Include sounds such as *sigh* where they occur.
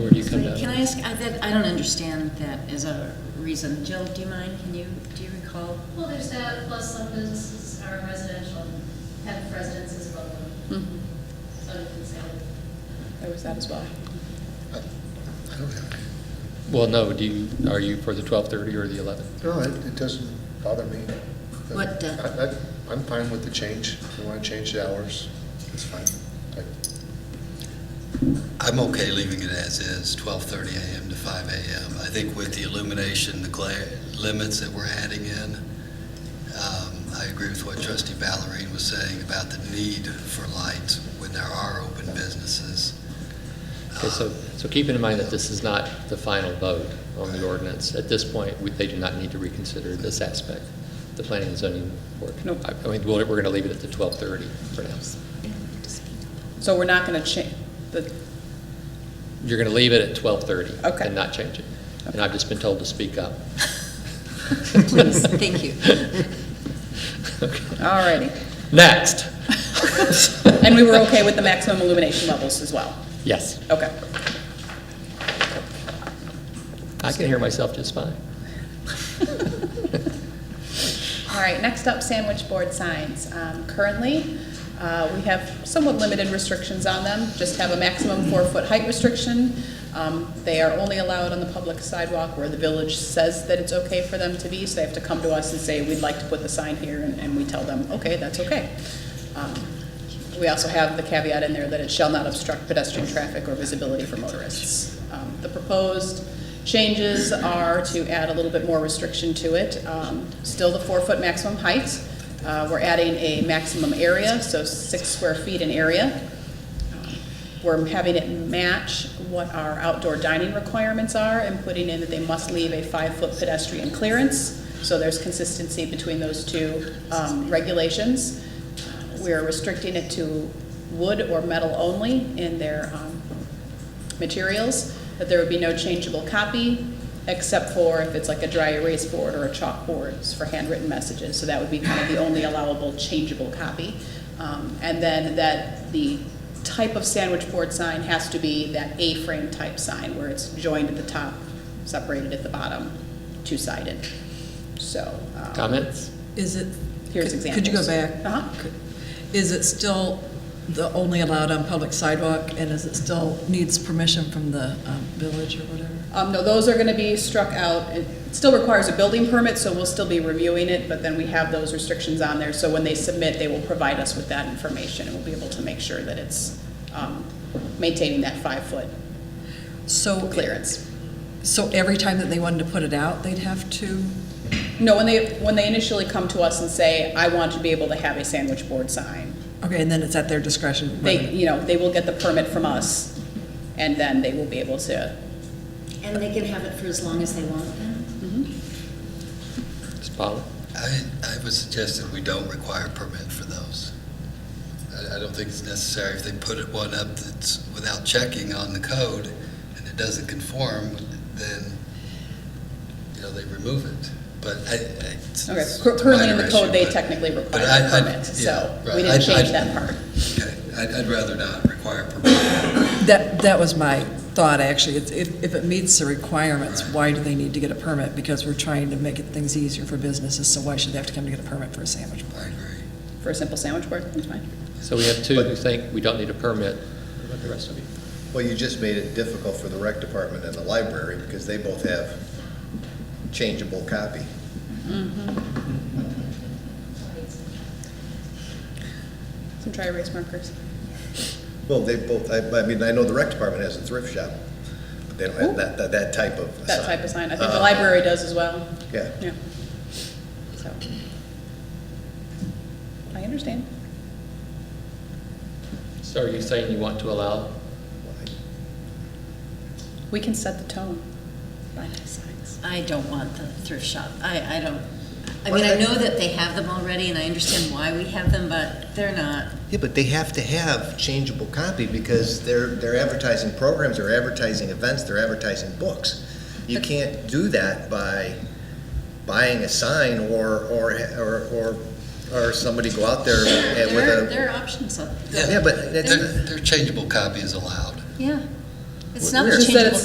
ask, I, that, I don't understand that as a reason. Jill, do you mind, can you, do you recall? Well, there's that, plus some businesses are residential, have residences above them, so you can sell. There was that as well. I I don't have, any. Well, no, do you, are you for the 12:30 or the 11? no, it it doesn't bother me. What the- I- I- I'm fine with the change. If you want to change the hours, it's fine. I- I'm okay leaving it as is, 12:30 a.m. to 5 a.m. I think with the illumination, the glare limits that we're adding in, um, I agree with what trustee Ballerine was saying about the need for light when there are open businesses. Okay, so, so keeping in mind that this is not the final vote on the ordinance, at this point, we- they do not need to reconsider this aspect, the planning and zoning board. Nope. I I mean, we're going to leave it at the 12:30 for now. So we're not going to change, the, You're going to leave it at 12:30. Okay. And not change it. And I've just been told to speak *laughs* up. Please, thank you. Okay. all righty. Next. *laughs* And we were okay with the maximum illumination levels as well? Yes. Okay. I can hear myself just fine. All right, next up, sandwich board signs. Um, Currently, uh, we have somewhat limited restrictions on them, just have a maximum four-foot height restriction. Um, They are only allowed on the public sidewalk where the village says that it's okay for them to be, so they have to come to us and say, we'd like to put the sign here, and and we tell them, okay, that's okay. Um, We also have the caveat in there that it shall not obstruct pedestrian traffic or visibility for motorists. Um, The proposed changes are to add a little bit more restriction to it. Um, Still the four-foot maximum height. Uh, We're adding a maximum area, so six square feet in area. We're having it match what our outdoor dining requirements are and putting in that they must leave a five-foot pedestrian clearance. So there's consistency between those two um, regulations. We're restricting it to wood or metal only in their um, materials, that there would be no changeable copy, except for if it's like a dry erase board or a chalkboard it's for handwritten messages. So that would be kind of the only allowable changeable copy. Um, And then that the type of sandwich board sign has to be that A-frame type sign, where it's joined at the top, separated at the bottom, two-sided. So. um, Comments? Is it? Here's could- Could you go examples. back? Uh-huh. Is it still the only allowed on public sidewalk, and is it still needs permission from the um, village or whatever? Um, no, those are gonna be struck out. It still requires a building permit, so we'll still be reviewing it, but then we have those restrictions on there. So when they submit, they will provide us with that information, and we'll be able to make sure that it's, um, maintaining that five-foot So. clearance. So every time that they wanted to put it out, they'd have to? No, when they, when they initially come to us and say, I want to be able to have a sandwich board sign, Okay, and then it's at their discretion? they, whether- you know, they will get the permit from us, and then they will be able to, And they can have it for as long as they want then? Ms. Paula? I, I would suggest that we don't require a permit for those. I, I don't think it's necessary. If they put it one up that's without checking on the code and it doesn't conform, then, you know, they remove it. But I, I. it's- okay, it's a currently in the minor code, issue, they but- technically require but I- a I- permit, so yeah, we right. didn't I'd- I'd- change that part. Okay, I'd, I'd rather not require a permit. That, that was my thought, actually. It's- If, if it meets the requirements, why do they need to get a permit? Because we're trying to make it- things easier for businesses, so why should they have to come to get a permit for a sandwich? I agree. For a simple sandwich board, that's fine. So we have two who think we don't need a permit. What about the rest of you? Well, you just made it difficult for the rec department and the library because they both have changeable copy. Some dry erase markers. Well, they both, I, I mean, I know the rec department has a thrift shop, but they don't have that, that, that type of sign. That type of sign. I think the Uh, library does as well. Yeah. Yeah. So. I understand. So are you saying you want to allow We can set the tone by the signs. I don't want the thrift shop. I, I don't, I mean, I know that they have them already and I understand why we have them, but they're not. Yeah, but they have to have changeable copy because they're, they're advertising programs, they're advertising events, they're advertising books. You can't do that by buying a sign or, or, or, or, or somebody go out there and with There are, a. there are options up, Yeah, but that's. Their, their changeable copy is allowed. yeah. It's not the Weird. Just that changeable it's